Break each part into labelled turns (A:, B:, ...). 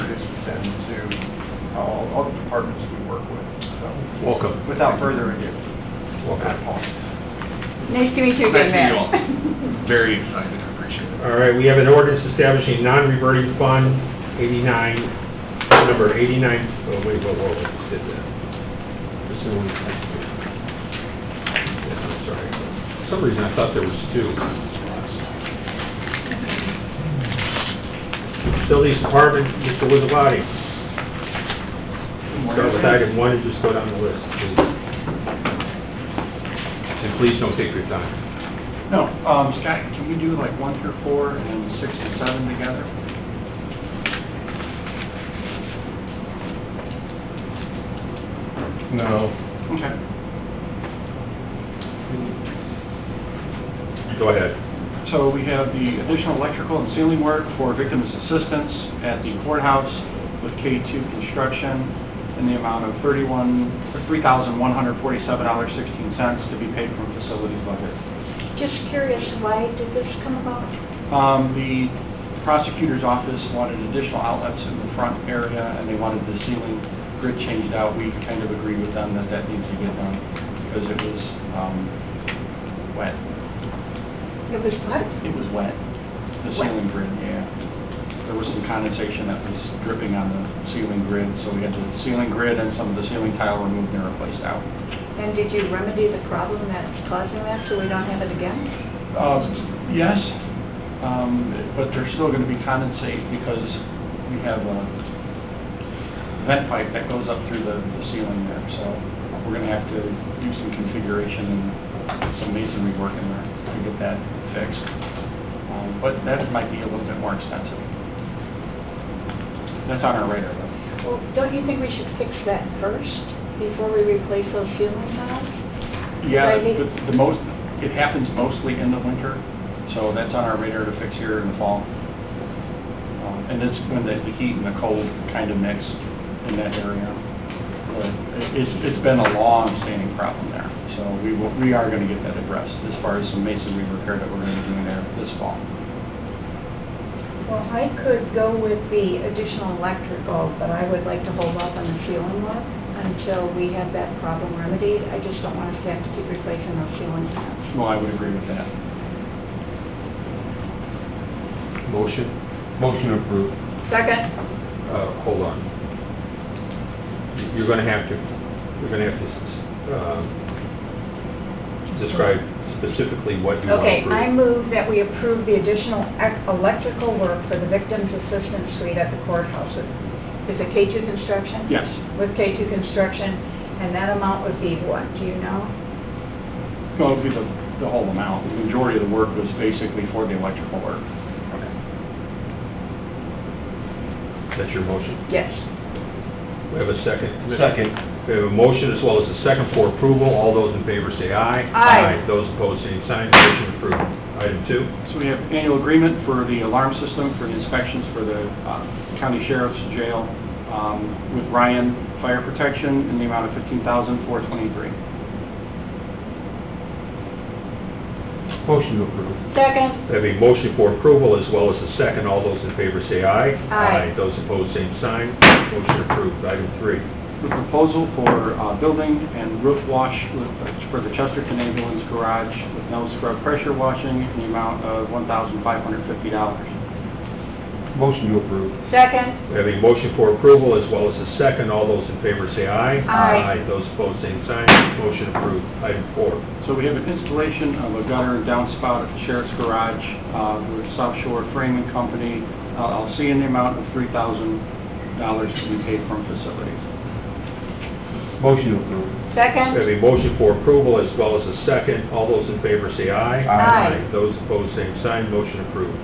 A: and to all, all the departments we work with, so.
B: Welcome.
A: Without further ado, I apologize.
C: Nice to meet you again,
D: Nice to meet
C: Matt.
D: you all. Very excited, I appreciate it.
B: All right, we have an ordinance establishing non-reverting fund 89, number 89, oh, wait, whoa, whoa, whoa, did that. This is the one. Yeah, I'm sorry. For some reason, I thought there was two. Facilities Department, Mr. Wizabody. Start with item one and just go down the list, please. And please don't take your time.
A: No, um, Scott, can we do like one through four and six and seven together?
E: No.
A: Okay.
B: Go ahead.
A: So we have the additional electrical and ceiling work for victims' assistance at the courthouse with K2 Construction in the amount of 31, $3,147.16 to be paid from facilities budget.
F: Just curious, why did this come about?
A: Um, The prosecutor's office wanted additional outlets in the front area, and they wanted the ceiling grid changed out. We kind of agreed with them that that needs to get done because it was um, wet.
C: It was what?
A: It was wet, the
C: Wet.
A: ceiling grid, yeah. There was some condensation that was dripping on the ceiling grid, so we had the ceiling grid and some of the ceiling tile removed and replaced out.
C: And did you remedy the problem that's causing that, so we don't have it again?
A: Uh, Yes, um, but there's still going to be condensate because we have a vent pipe that goes up through the the ceiling there, so we're going to have to do some configuration and some masonry work in there to get that fixed. Um, But that might be a little bit more expensive. That's on our radar, though.
F: Well, don't you think we should fix that first, before we replace those ceiling tiles?
A: Yeah,
F: Friday?
A: but the most, it happens mostly in the winter, so that's on our radar to fix here in the fall. Um, And it's when the the heat and the cold kind of mix in that area. But it- It's, it's been a long-standing problem there, so we will, we are going to get that addressed as far as some masonry repair that we're going to be doing there this fall.
C: Well, I could go with the additional electrical, but I would like to hold off on the ceiling work until we have that problem remedied. I just don't want us to have to keep replacing those ceiling tiles.
A: Well, I would agree with that.
B: Motion?
E: Motion approved.
C: Second?
B: Uh, hold on. You're gonna have to, you're gonna have to, um, describe specifically what you want
C: Okay,
B: to
C: I
B: approve.
C: move that we approve the additional ec- electrical work for the victim's assistance suite at the courthouse. Is it K2 Construction?
A: Yes.
C: With K2 Construction, and that amount would be what, do you know?
A: Well, it would be the, the whole amount. The majority of the work was basically for the electrical work.
B: That's your motion.
C: Yes.
B: We have a second.
E: Second.
B: We have a motion as well as a second for approval. All those in favor say aye.
C: Aye.
B: Those opposed, same sign. Motion approved. Item two,
A: So we have annual agreement for the alarm system for the inspections for the uh, county sheriff's jail um, with Ryan Fire Protection in the amount of $15,423.
E: Motion approved.
F: Second,
B: we have a motion for approval as well as a second. All those in favor say aye.
C: Aye.
B: Those opposed, same sign. Motion approved. Item three.
A: The proposal for uh, building and roof wash with- for the Chesterton ambulance garage with no scrub pressure washing in the amount of $1,550.
E: Motion approved.
F: second,
B: We have a motion for approval as well as a second. All those in favor say aye.
C: Aye.
B: Those opposed, same sign. Motion approved. Item four.
A: So we have an installation of a gutter and downspout at the sheriff's garage uh, with South Shore Framing Company Uh, LLC in the amount of $3,000 to be paid from facilities.
E: Motion approved.
B: We have
F: second,
B: a motion for approval as well as a second. All those in favor say aye.
C: Aye.
B: Those opposed, same sign. Motion approved.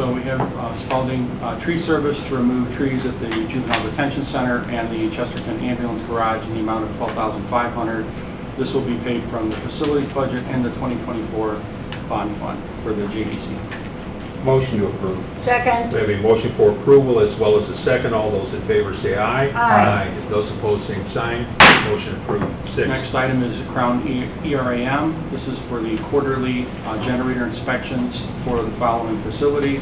A: So we have uh, Spalding uh, Tree Service to remove trees at the juvenile detention center and the Chesterton ambulance garage in the amount of $12,500. This will be paid from the facilities budget and the 2024 bond fund for the JDC.
E: Motion approved.
B: We
F: second,
B: have a motion for approval as well as a second. All those in favor say aye.
C: Aye.
B: Those opposed, same sign. Motion approved. Six.
A: Next item is Crown E- ERAM. This is for the quarterly uh, generator inspections for the following facilities.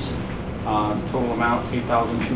A: Uh, Total amount, 8200